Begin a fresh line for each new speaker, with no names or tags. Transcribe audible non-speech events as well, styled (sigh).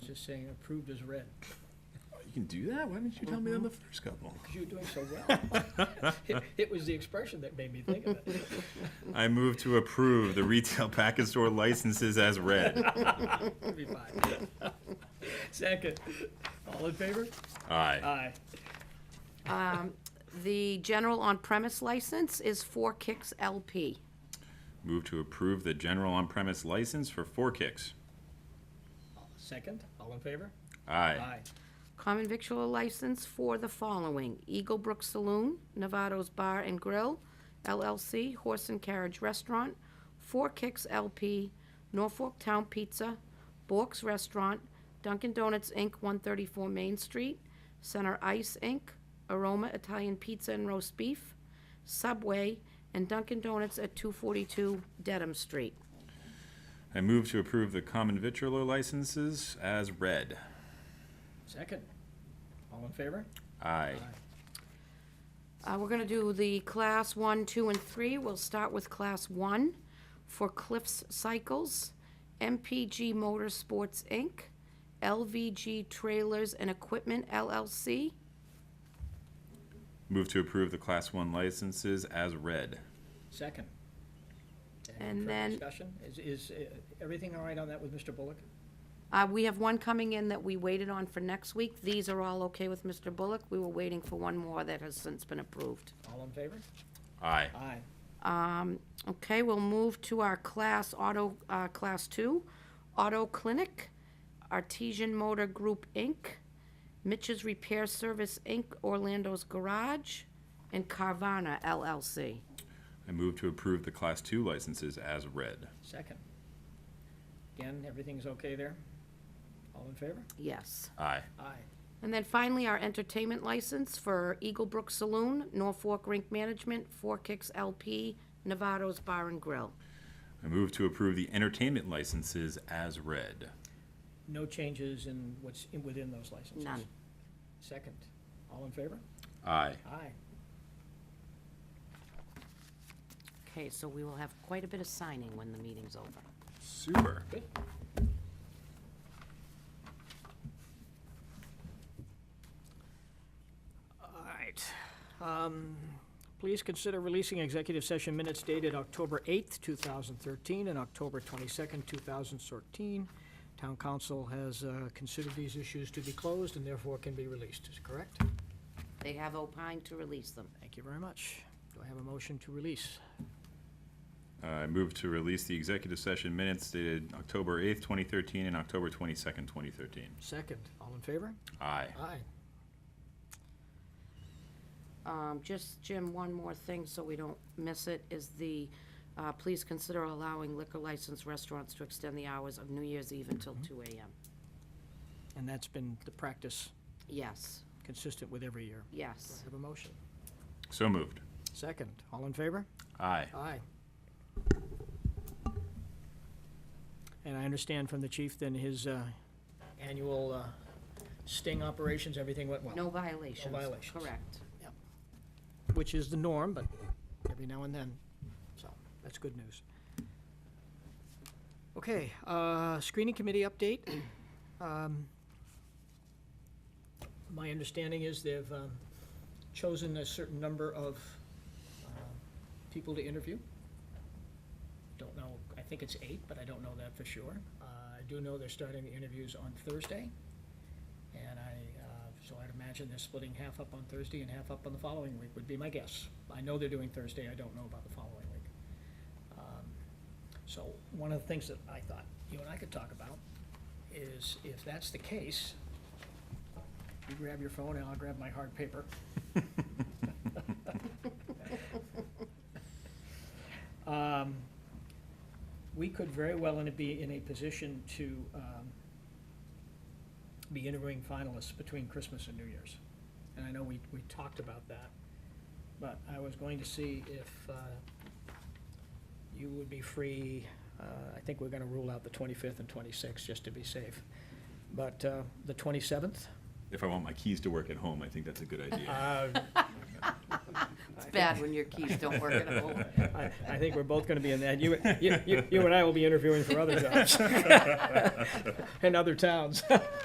just saying approved as read,
You can do that? Why didn't you tell me on the first couple?
because you were doing so well. (laughs) It- It was the expression that made me think of it.
I move to approve the retail (laughs) package store licenses as read.
It'll be fine. (laughs) Second, all in favor?
Aye.
Aye.
The general on-premise license is Four Kicks LP.
Move to approve the general on-premise license for Four Kicks.
Second, all in favor?
Aye.
Aye.
Common victual license for the following: Eagle Brook Saloon, Novato's Bar and Grill, LLC, Horse and Carriage Restaurant, Four Kicks LP, Norfolk Town Pizza, Bork's Restaurant, Dunkin' Donuts Inc., 134 Main Street, Center Ice Inc., Aroma Italian Pizza and Roast Beef, Subway, and Dunkin' Donuts at 242 Dedham Street.
I move to approve the common vitriol licenses as read.
Second, all in favor?
Aye.
Uh, we're gonna do the class one, two, and three. We'll start with class one for Cliffs Cycles, MPG Motorsports, Inc., LVG Trailers and Equipment LLC.
Move to approve the class one licenses as read.
Second.
And
further
then-
Discussion, is, is uh, everything all right on that with Mr. Bullock?
Uh, we have one coming in that we waited on for next week. These are all okay with Mr. Bullock. We were waiting for one more that has since been approved.
All in favor?
Aye.
Aye.
Um, Okay, we'll move to our class auto, uh, class two, Auto Clinic, Artesian Motor Group, Inc., Mitch's Repair Service, Inc., Orlando's Garage, and Carvana LLC.
I move to approve the class two licenses as read.
Second. Again, everything's okay there? All in favor?
Yes.
Aye.
Aye.
And then finally, our entertainment license for Eagle Brook Saloon, Norfolk Rink Management, Four Kicks LP, Novato's Bar and Grill.
I move to approve the entertainment licenses as read.
No changes in what's in- within those licenses?
None.
Second, all in favor?
Aye.
Aye.
Okay, so we will have quite a bit of signing when the meeting's over.
Super.
Good. All right. Um, Please consider releasing executive session minutes dated October 8th, 2013, and October 22nd, 2013. Town council has uh, considered these issues to be closed and therefore can be released, is correct?
They have opined to release them.
Thank you very much. Do I have a motion to release?
Uh, I move to release the executive session minutes dated October 8th, 2013 and October 22nd, 2013.
Second, all in favor?
Aye.
Aye.
Um, just, Jim, one more thing, so we don't miss it, is the, uh, please consider allowing liquor licensed restaurants to extend the hours of New Year's Eve until two AM.
And that's been the practice
Yes,
consistent with every year. Do I
yes.
have a motion?
So moved.
Second, all in favor?
Aye.
Aye. And I understand from the chief, then, his uh, annual uh, sting operations, everything went well?
No violations.
violations.
Correct.
Which is the norm, but every now and then, so that's good news. Okay, uh, screening committee update. Um, My understanding is they've um, chosen a certain number of um, people to interview. Don't know, I think it's eight, but I don't know that for sure. Uh, I do know they're starting the interviews on Thursday, and I, uh, so I'd imagine they're splitting half up on Thursday and half up on the following week, would be my guess. I know they're doing Thursday, I don't know about the following week. Um, So, one of the things that I thought you and I could talk about is if that's the case, you grab your phone and I'll grab my hard paper. Um, We could very well in a- be in a position to um, be interviewing finalists between Christmas and New Year's. And I know we, we talked about that, but I was going to see if uh, you would be free. uh, I think we're gonna rule out the 25th and 26th, just to be safe. But uh, the 27th?
If I want my keys to work at home, I think that's a good
(laughs)
idea.
uh,
It's bad when your keys don't work at
(laughs)
home.
I, I think we're both gonna be in that. You, (laughs) you, you you and I will be interviewing for other jobs. And other towns.